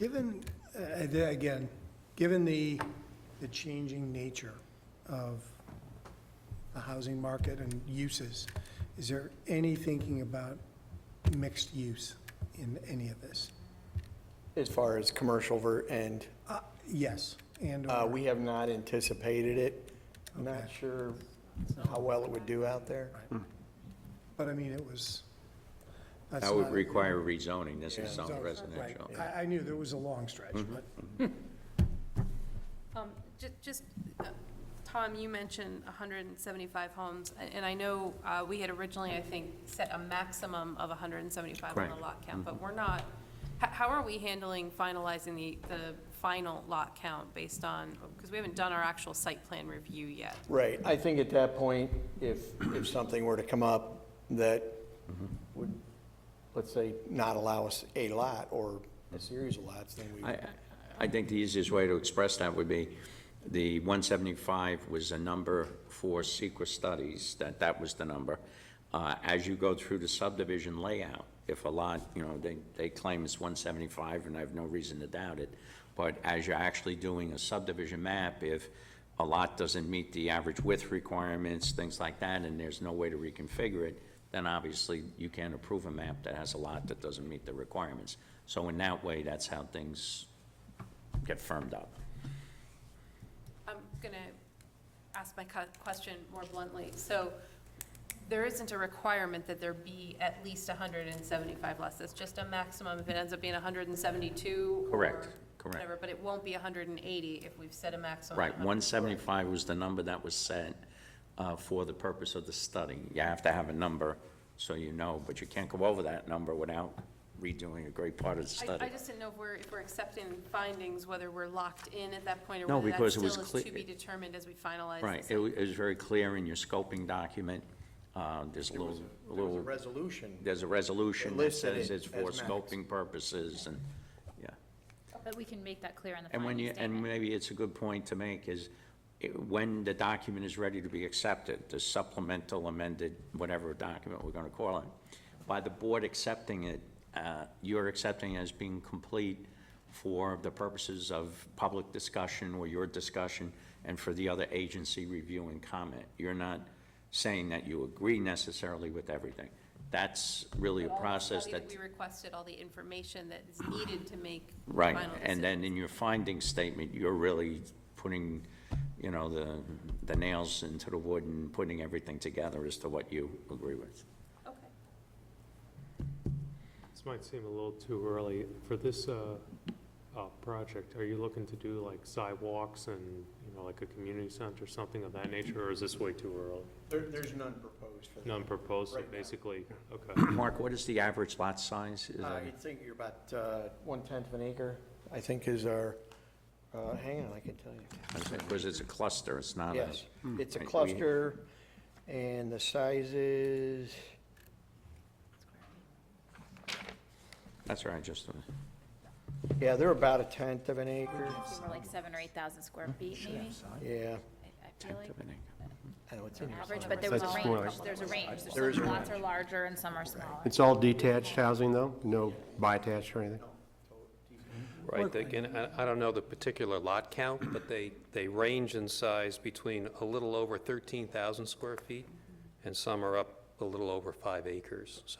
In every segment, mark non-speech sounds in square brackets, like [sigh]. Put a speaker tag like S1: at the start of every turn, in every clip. S1: Given, uh, the- again, given the, the changing nature of the housing market and uses, is there any thinking about mixed use in any of this?
S2: As far as commercial ver, and
S1: Uh, Yes, and,
S2: uh,
S1: or-
S2: we have not anticipated it. I'm not
S1: Okay.
S2: sure how well it would do out there.
S1: but I mean, it was. that's
S3: That would
S1: not-
S3: require rezoning, this
S2: Yeah.
S3: is zone
S1: Right.
S3: residential. Mm-hmm.
S1: I, I knew there was a long stretch, but
S4: Um, ju- just, uh, Tom, you mentioned hundred and seventy-five homes, a- and I know, uh, we had originally, I think, set a maximum of hundred and seventy-five on the
S3: Correct.
S4: lot count, but we're not, how, how are we handling finalizing the, the final lot count based on, because we haven't done our actual site plan review yet.
S2: Right, I think at that point, if, if something were to come up that would, let's say, not allow us a lot or a series of lots, then we,
S3: I, I think the easiest way to express that would be, the 175 was a number for secret studies, that, that was the number. Uh, As you go through the subdivision layout, if a lot, you know, they, they claim it's 175, and I have no reason to doubt it, but as you're actually doing a subdivision map, if a lot doesn't meet the average width requirements, things like that, and there's no way to reconfigure it, then obviously you can't approve a map that has a lot that doesn't meet the requirements. So in that way, that's how things get firmed up.
S4: I'm gonna ask my cu- question more bluntly. So there isn't a requirement that there be at least hundred and seventy-five less. It's just a maximum. If it ends up being hundred and seventy-two
S3: Correct, correct.
S4: Whatever, but it won't be hundred and eighty if we've set a maximum.
S3: Right,
S4: of 100.
S3: 175 was the number that was set uh, for the purpose of the study. You have to have a number so you know, but you can't go over that number without redoing a great part of the
S4: I, I
S3: study.
S4: just didn't know if we're, if we're accepting findings, whether we're locked in at that point or
S3: No,
S4: whether that
S3: because it was
S4: still is
S3: cle-
S4: to be determined as we finalize.
S3: Right,
S4: this.
S3: it wa- it was very clear in your scoping document, uh, there's a
S2: there was
S3: little,
S2: a- there was a
S3: little,
S2: resolution.
S3: there's a resolution that
S2: listed
S3: says
S2: it
S3: it's for
S2: as max.
S3: scoping purposes and, yeah.
S5: But we can make that clear on the
S3: And when
S5: finding
S3: you, and
S5: statement.
S3: maybe it's a good point to make is, it- when the document is ready to be accepted, the supplemental amended, whatever document we're gonna call it, by the board accepting it, uh, you're accepting it as being complete for the purposes of public discussion or your discussion, and for the other agency review and comment. You're not saying that you agree necessarily with everything. That's really a
S4: All the
S3: process
S4: study
S3: that
S4: We requested all the information that is needed to make. the
S3: Right,
S4: final
S3: and
S4: decision.
S3: then in your finding statement, you're really putting, you know, the, the nails into the wood and putting everything together as to what you agree with.
S4: Okay.
S6: This might seem a little too early. For this uh, uh, project, are you looking to do like sidewalks and, you know, like a community center, something of that nature, or is this way too early?
S2: There, there's none proposed for that.
S6: None proposed, so
S2: Right now.
S6: basically, okay.
S3: [clears throat] Mark, what is the average lot size? Is
S2: Uh,
S3: that-
S2: you'd think you're about, uh, one-tenth of an acre, I think is our, uh, hang on, I can tell you.
S3: Because it's a cluster, it's not a. Hmm.
S2: Yes, it's a
S3: Right, we-
S2: cluster, and the size is,
S3: That's right, just,
S2: yeah, they're about a tenth of an acre.
S5: They were Like seven or eight thousand square feet, maybe?
S2: Yeah,
S5: I I feel
S3: tenth
S5: like
S3: of an acre.
S2: I know it's
S5: an
S2: in there
S5: average,
S2: somewhere.
S5: but there was a
S7: That's
S5: range,
S7: smaller.
S5: there's a range. There's
S2: There is
S5: some
S2: a
S5: lots are larger and some are smaller.
S7: It's all detached housing, though? No bi-attached or anything?
S8: Right, again, I I don't know the particular lot count, but they, they range in size between a little over 13,000 square feet, and some are up a little over five acres. So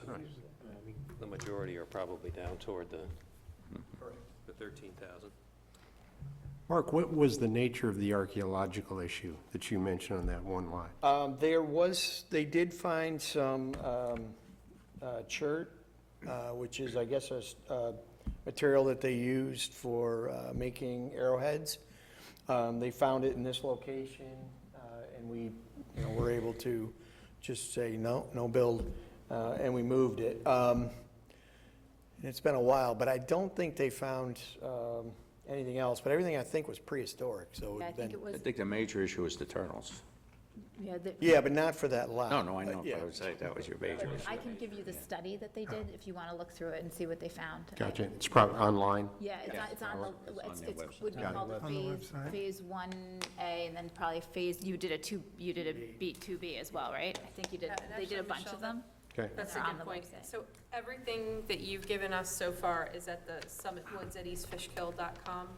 S8: the majority are probably down toward the the 13,000.
S7: Mark, what was the nature of the archaeological issue that you mentioned on that one lot?
S2: Um, there was, they did find some, um, uh, chert, uh, which is, I guess, a, s- uh, material that they used for, uh, making arrowheads. Um, they found it in this location, uh, and we, you know, were able to just say, no, no build, uh, and we moved it. Um, it's been a while, but I don't think they found, um, anything else, but everything I think was prehistoric, so.
S5: Yeah, I
S2: it'd been-
S5: think it
S3: I
S5: was,
S3: think the major issue is the turtles.
S5: yeah, the-
S2: Yeah, but not for that lot.
S3: No, no, I know, but
S2: Uh, yeah.
S3: I would say that was your major issue.
S5: I can give you the study that they did if you want to look through it and see what they found.
S7: Gotcha, it's probably online?
S5: Yeah, it's on, it's on, the- it's,
S3: their
S5: it's,
S3: website.
S5: would be
S7: Got it.
S5: called
S1: On the
S5: phase,
S1: website.
S5: phase one A, and then probably phase, you did a two, you did a B, two B as well, right? I think you did,
S4: Yeah, and
S5: they did a
S4: actually,
S5: bunch
S4: Michelle,
S5: of them.
S7: Okay.
S4: That's a
S5: They're on
S4: good
S5: the
S4: point.
S5: website.
S4: So everything that you've given us so far is at the Summit Woods at eastfishkill.com